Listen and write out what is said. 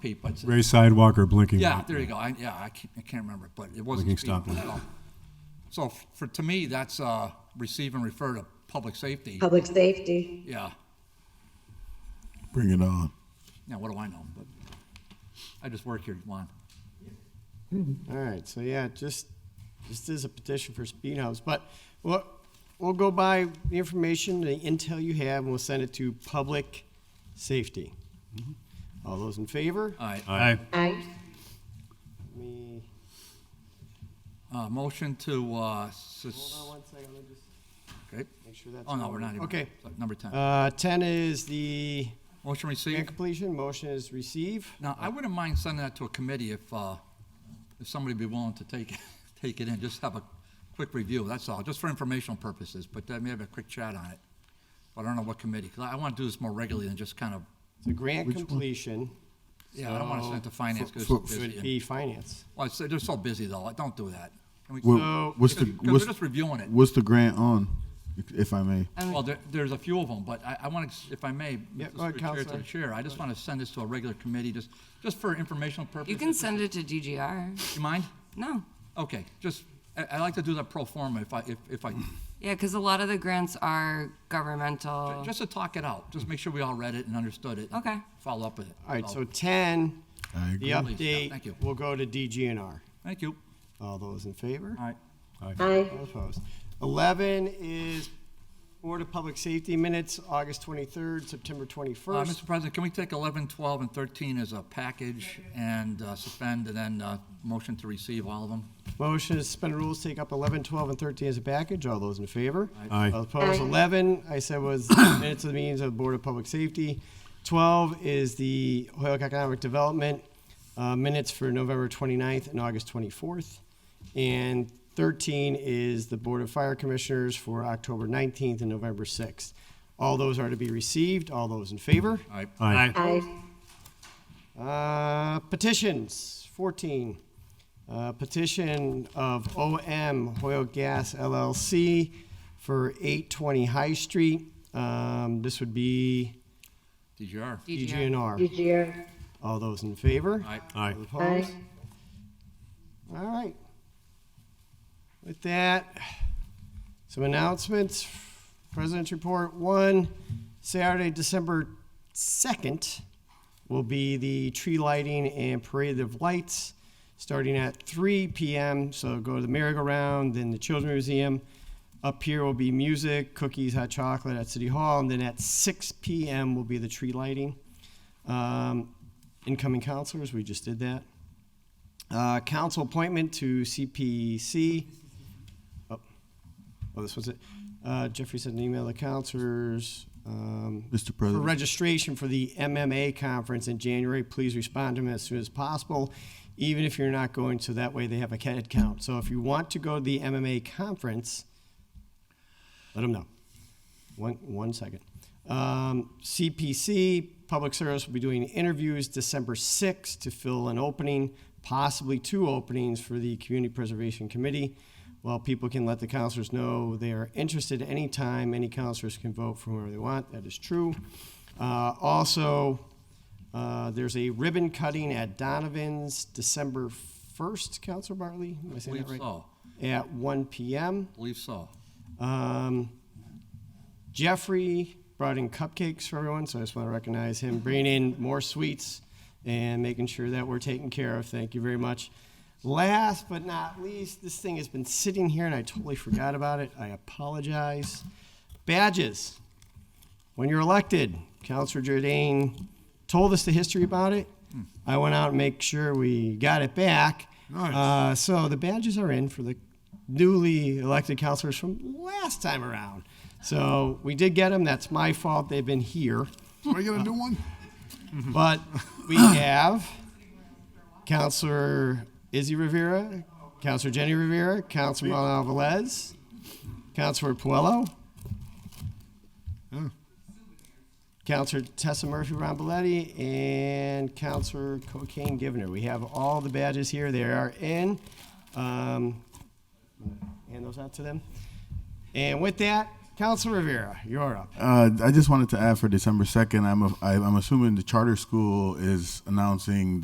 Pete, but, Gray sidewalk or blinking yeah, light? there you go, I, yeah, I can't, I can't remember, but it wasn't. Blinking speed stop light. at all. So f- for, to me, that's, uh, receive and refer to public safety, Public safety. yeah, Bring it on. now, what do I know, but, I just work here, Juan. All right, so yeah, just, just is a petition for speed humps, but we'll, we'll go by the information, the intel you have, and we'll send it to public safety. Mm-hmm. All those in favor? All right, Aye. Aye. Let me, uh, motion to, uh, sus- hold on one second, let me just okay. make sure that's. Oh, no, all- we're not even. Okay, So, Number ten, uh, ten is the motion grant received, completion, motion is receive. now, Uh, I wouldn't mind sending that to a committee if, uh, if somebody be willing to take, take it in, just have a quick review, that's all, just for informational purposes, but then maybe a quick chat on it. But I don't know what committee, 'cause I, I wanna do this more regularly than just kind of, The grant completion yeah, I don't wanna send it to finance, cause So- it's so- busy. would and- be finance. Well, it's- they're so busy though, I don't do that. Can we- Well, what's the- Because we're what's- just reviewing it. What's the grant on, if- if I may? Well, there, there's a few of them, but I, I want to, if I may, Yeah, Mr. go ahead, Chair, to Counselor. the chair, I just want to send this to a regular committee, just, just for informational purposes. You can send it to DGR. You mind? No. Okay, just, I, I like to do the pro forma if I, if, if I, Yeah, because a lot of the grants are Uh. governmental. just to talk it out, just make sure we all read it and understood it. and Okay. Follow up with it. All right, so ten, I the agree. Please, yeah, Oh. thank you. update will go to DGNR. Thank you. All those in favor? All right. Aye. All Opposed. Eleven is Board of Public Safety minutes, August twenty-third, September Uh, twenty-first. Mr. President, can we take 11, 12, and 13 as a package and uh, suspend and then, uh, motion to receive all of them? Motion to suspend rules, take up 11, 12, and thirteen as a package. All those in favor? Aye. All Opposed. Eleven, I said was minutes of the meetings of the Board of Public Safety. Twelve is the Hoyoke Economic Development, uh, minutes for November 29th and August twenty-fourth. And thirteen is the Board of Fire Commissioners for October nineteenth and November sixth. All those are to be received. All those in favor? All right. Aye. Aye. Uh, petitions, 14. Uh, petition of OM Hoyle Gas LLC for 820 High Street. Um, this would be DGR. DGR. DGNR. DGR. All those in favor? All right. Aye. All Aye. opposed? All right. With that, some announcements. President's Report One, Saturday, December second, will be the tree lighting and parade of lights, starting at three PM. So go to the merry-go-round, then the Children's Museum. Up here will be music, cookies, hot chocolate at City Hall, and then at six PM will be the tree lighting. Um, incoming counselors, we just did that. Uh, council appointment to CPC. Oh, oh, this was it. Uh, Jeffrey sent an email to counselors. um, Mr. For President. registration for the MMA conference in January, please respond to them as soon as possible, even if you're not going, so that way they have a head count. So if you want to go to the MMA conference, let them know. One, one second. Um, CPC, Public Service will be doing interviews December 6th to fill an opening, possibly two openings for the Community Preservation Committee. While people can let the counselors know they are interested anytime, any counselors can vote for whoever they want, that is true. Uh, also, uh, there's a ribbon cutting at Donovan's December 1st, Counselor Bartley, am I saying that Believe right? so. At 1 PM. Believe so. Um, Jeffrey brought in cupcakes for everyone, so I just want to recognize him bringing in more sweets and making sure that we're taken care of. Thank you very much. Last but not least, this thing has been sitting here and I totally forgot about it. I apologize. Badges. When you're elected, Counselor Jordan told us the history about it. I went out and make sure we got it back. Nice. Uh, so the badges are in for the newly elected counselors from last time around. So we did get them. That's my fault. They've been here. Are you gonna do one? But we have Counselor Izzy Rivera, Counselor Jenny Rivera, Counselor Manuel Velez, Counselor Puello, Counselor Tessa Murphy Rombaletti, and Counselor Cocaine Givner. We have all the badges here. They are in. Um, hand those out to them. And with that, Council Rivera, you're up. Uh, I just wanted to add for December second. I'm a, I, I'm assuming the charter school is announcing